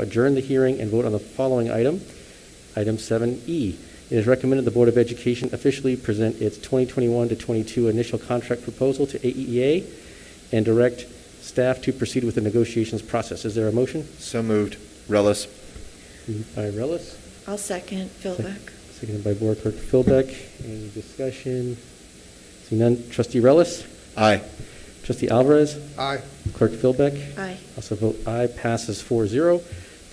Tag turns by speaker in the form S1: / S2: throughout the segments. S1: adjourn the hearing and vote on the following item. Item 7E, it is recommended the Board of Education officially present its 2021 to 22 initial contract proposal to AEEA and direct staff to proceed with the negotiations process. Is there a motion?
S2: So moved. Relis.
S1: Moved by Relis,
S3: I'll second Philbeck.
S1: seconded by Board Clerk Philbeck. Any discussion? Seeing none, trustee Relis,
S2: Aye.
S1: trustee Alvarez,
S2: Aye.
S1: clerk Philbeck.
S3: Aye.
S1: Also vote aye, passes 4-0.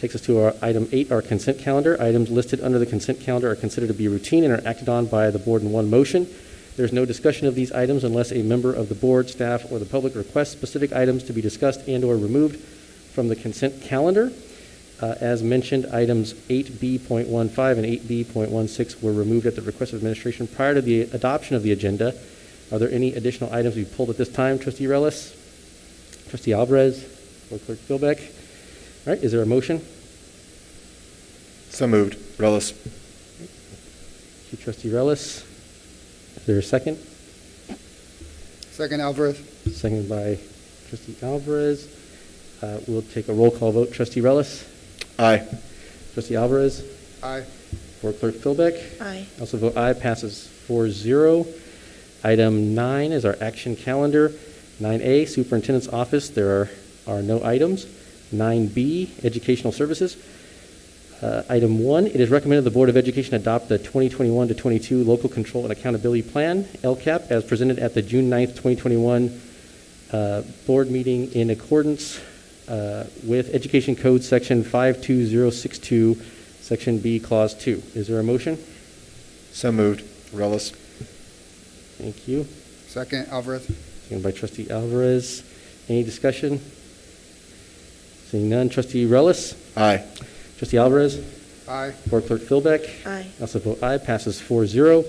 S1: Takes us to our item eight, our consent calendar. Items listed under the consent calendar are considered to be routine and are acted on by the board in one motion. There's no discussion of these items unless a member of the board, staff, or the public requests specific items to be discussed and/or removed from the consent calendar. Uh, As mentioned, items 8B.15 and 8B.16 were removed at the request of administration prior to the adoption of the agenda. Are there any additional items we pulled at this time, trustee Relis? Trustee Alvarez or Clerk Philbeck. All right, is there a motion?
S2: So moved. Relis.
S1: Thank you, Trustee Relis. Is there a second?
S4: Second Alvarez.
S1: Seconded by Trustee Alvarez. Uh, We'll take a roll call vote. Trustee Relis,
S2: Aye.
S1: Trustee Alvarez,
S4: Aye.
S1: or Clerk Philbeck.
S3: Aye.
S1: Also vote aye, passes 4-0. Item nine is our action calendar. 9A, Superintendent's Office, there are are no items. 9B, Educational Services. Uh, Item one, it is recommended the Board of Education adopt the 2021 to 22 Local Control and Accountability Plan, LCAP, as presented at the June 9th, 2021 uh, board meeting in accordance uh, with Education Code Section 52062, Section B, Clause 2. Is there a motion?
S2: So moved. Relis.
S1: Thank you.
S4: Second Alvarez.
S1: Seconded by trustee Alvarez. Any discussion? Seeing none, trustee Relis,
S2: Aye.
S1: trustee Alvarez,
S4: Aye.
S1: board clerk Philbeck.
S3: Aye.
S1: Also vote aye, passes 4-0.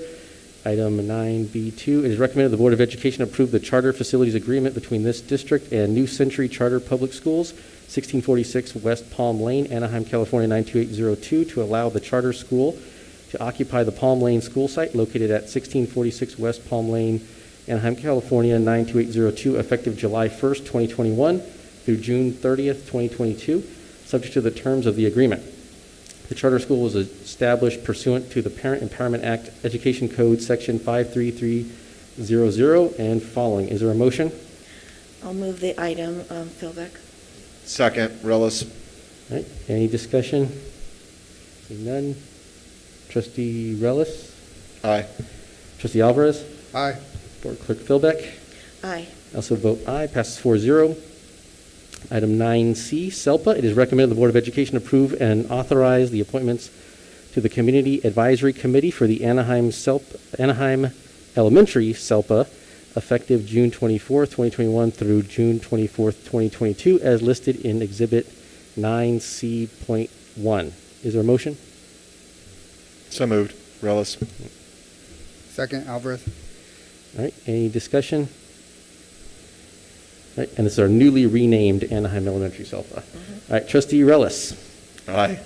S1: Item 9B2, it is recommended the Board of Education approve the charter facilities agreement between this district and New Century Charter Public Schools, 1646 West Palm Lane, Anaheim, California 92802, to allow the charter school to occupy the Palm Lane school site located at 1646 West Palm Lane, Anaheim, California 92802, effective July 1st, 2021 through June 30th, 2022, subject to the terms of the agreement. The charter school was established pursuant to the Parent Empowerment Act, Education Code, Section 53300 and following. Is there a motion?
S3: I'll move the item, um, Philbeck.
S2: Second. Relis.
S1: All right, any discussion? Seeing none. Trustee Relis?
S2: Aye.
S1: Trustee Alvarez?
S4: Aye.
S1: Board Clerk Philbeck?
S3: Aye.
S1: Also vote aye, passes 4-0. Item 9C, SELPA. It is recommended the Board of Education approve and authorize the appointments to the Community Advisory Committee for the Anaheim SELP, Anaheim Elementary SELPA, effective June 24th, 2021 through June 24th, 2022, as listed in Exhibit 9C.1. Is there a motion?
S2: So moved. Relis.
S4: Second Alvarez.
S1: All right, any discussion? All right, and this is our newly renamed Anaheim Elementary SELPA. All right, trustee Relis,
S2: Aye.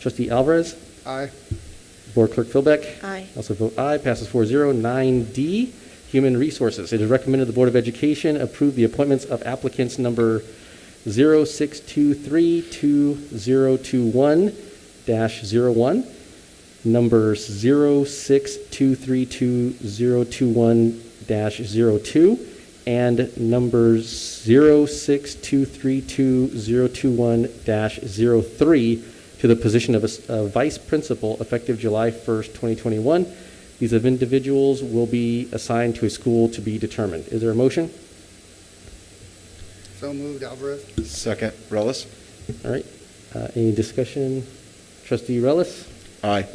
S1: trustee Alvarez,
S4: Aye.
S1: board clerk Philbeck.
S3: Aye.
S1: Also vote aye, passes 4-0. 9D, Human Resources. It is recommended the Board of Education approve the appointments of applicants number 06232021-01, number 06232021-02, and number 06232021-03 to the position of a s- a vice principal effective July 1st, 2021. These of individuals will be assigned to a school to be determined. Is there a motion?
S4: So moved Alvarez.
S2: Second. Relis.
S1: All right, Uh, any discussion? Trustee Relis?
S2: Aye.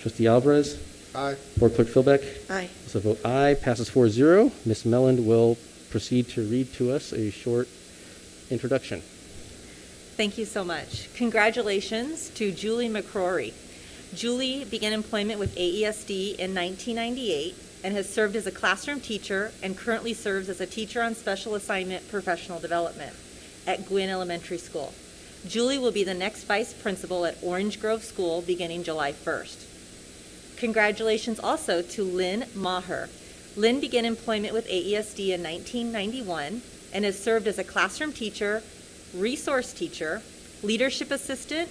S1: Trustee Alvarez?
S4: Aye.
S1: Board Clerk Philbeck?
S3: Aye.
S1: So vote aye, passes 4-0. Ms. Melland will proceed to read to us a short introduction.
S5: Thank you so much. Congratulations to Julie McCrory. Julie began employment with AESD in 1998 and has served as a classroom teacher and currently serves as a teacher on special assignment professional development at Gwynn Elementary School. Julie will be the next vice principal at Orange Grove School beginning July 1st. Congratulations also to Lynn Maher. Lynn began employment with AESD in 1991 and has served as a classroom teacher, resource teacher, leadership assistant